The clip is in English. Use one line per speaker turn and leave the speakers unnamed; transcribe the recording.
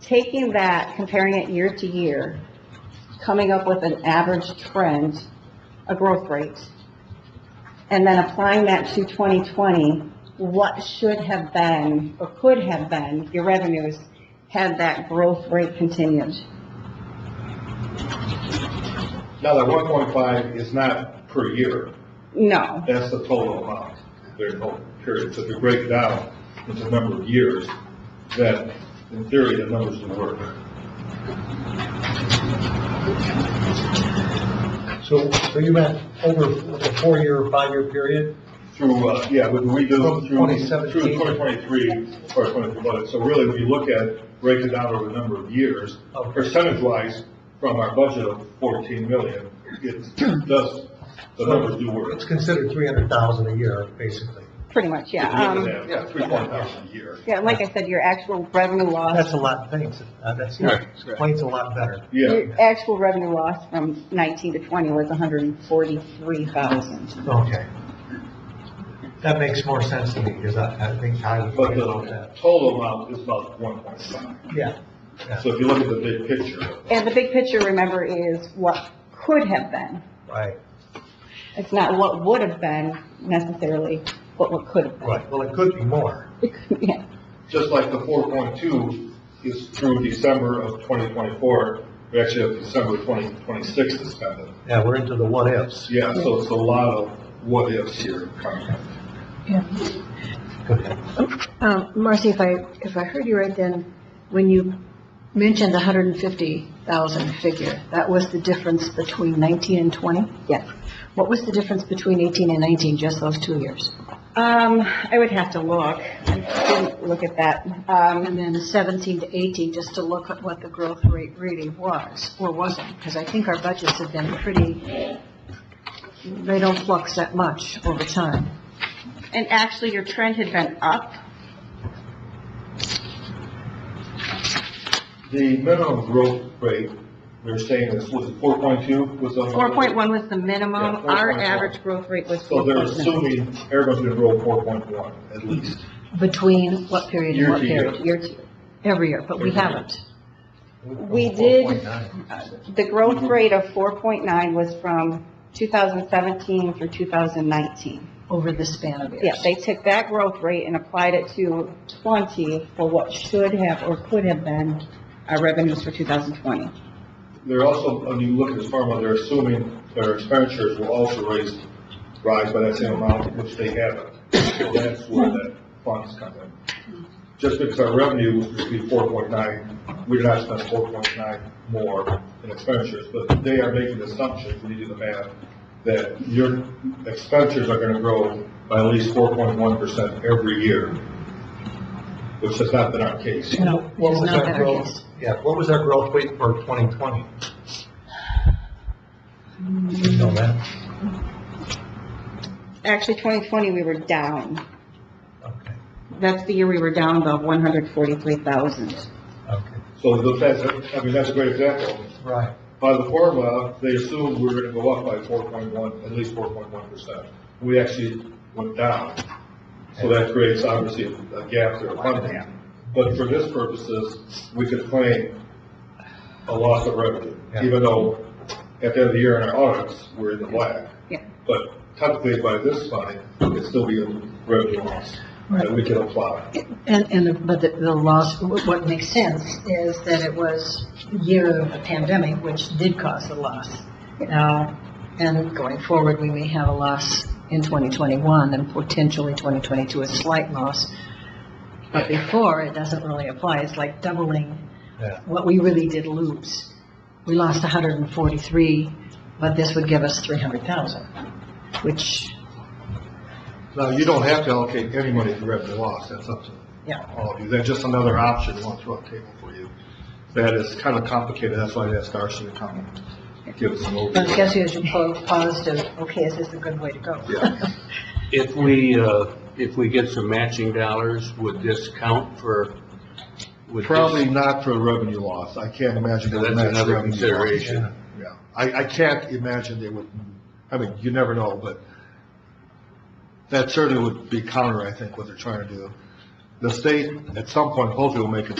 taking that, comparing it year to year, coming up with an average trend, a growth rate, and then applying that to 2020, what should have been, or could have been, your revenues had that growth rate continued?
Now, that one point five is not per year,
No.
that's the total amount, there's no period, so if you break it down into a number of years, then in theory, the numbers would work.
So, so you meant over a four-year, or five-year period?
Through, uh, yeah, but we do
From
through,
2017.
through twenty twenty-three, or twenty-four budget, so really, when you look at, break it down over a number of years,
Okay.
percentage-wise, from our budget of fourteen million, it does, the numbers do work.
It's considered three hundred thousand a year, basically.
Pretty much, yeah. Um,
Yeah, three point five a year.
Yeah, like I said, your actual revenue
That's
loss,
a lot of things, uh, that's,
Right, right.
explains a lot better.
Yeah,
your actual revenue loss from 19 to 20 was 143,000.
Okay. That makes more sense to me, because I, I think I would.
but
agree
uh,
with
the
that.
total amount is about one point five.
Yeah, yeah,
So if you look at the big picture,
And the big picture, remember, is what could have been.
right,
It's not what would have been necessarily, but what could have been.
right, well, it could be more,
Yeah.
just like the four point two is through December of twenty twenty-four, we actually have December twenty twenty-six to spend it.
yeah, we're into the what-ifs.
Yeah, so it's a lot of what ifs here coming up.
Um, Marcy, if I, if I heard you right then, when you mentioned the 150,000 figure, that was the difference between 19 and 20?
Yes.
What was the difference between 18 and 19, just those two years?
Um, I would have to look. I didn't look at that. Um,
And then 17 to 18, just to look at what the growth rate really was, or wasn't? Because I think our budgets have been pretty, they don't flux that much over time.
and actually, your trend had been up.
The minimum growth rate, we were saying this was four point two was the.
4.1 was the minimum.
Yeah, 4.1.
Our average growth rate was
So they're
4.9.
assuming everyone's gonna grow four point one at least.
Between what period and
Year
what
to year.
period? Year to year. Every year, but we
Every year.
haven't.
We did-
4.9.
The growth rate of 4.9 was from 2017 through 2019.
over the span of years.
Yeah, they took that growth rate and applied it to 20 for what should have or could have been our revenues for 2020.
They're also, when you look at this formula, they're assuming their expenditures will also raise, rise by that same amount, which they haven't. So that's where that funds come in. Just because our revenue would be four point nine, we did not spend four point nine more in expenditures, but they are making assumptions, when you do the math, that your expenditures are gonna grow by at least four point one percent every year, which has not been our case.
No,
What
it's
was
not
our
better,
growth-
yes.
Yeah, what was our growth rate for twenty twenty? You know that?
Actually, 2020, we were down.
Okay,
That's the year we were down about 143,000.
okay,
So the fact, I mean, that's a great example.
right.
By the formula, they assumed we were gonna go up by four point one, at least four point one percent. We actually went down. So that creates obviously a gap there of funding. But for this purposes, we could claim a loss of revenue,
Yeah.
even though at the end of the year in our audits, we're in the black.
Yeah.
But technically by this funding, it'd still be a revenue loss that we can apply.
And, and, the- but the, the loss, wh- what makes sense is that it was the year of the pandemic, which did cause a loss. Now, and going forward, we may have a loss in 2021 and potentially 2022, a slight loss. But before, it doesn't really apply. It's like doubling
Yeah.
what we really did lose. We lost 143, but this would give us 300,000, which,
Now, you don't have to allocate any money to revenue loss, that's up to
yeah.
all of you. That's just another option we want to throw on the table for you. That is kind of complicated, that's why I asked Darcy to come and give us an
But I guess
overview.
you should po- pause to, okay, is this a good way to go?
Yeah.
If we, uh, if we get some matching dollars, would this count for? would this-
Probably not for revenue loss, I can't imagine.
So
it would
that's
match
another
revenue loss.
consideration.
Yeah, I, I can't imagine they would, I mean, you never know, but that certainly would be counter, I think, what they're trying to do. The state, at some point, hopefully will make a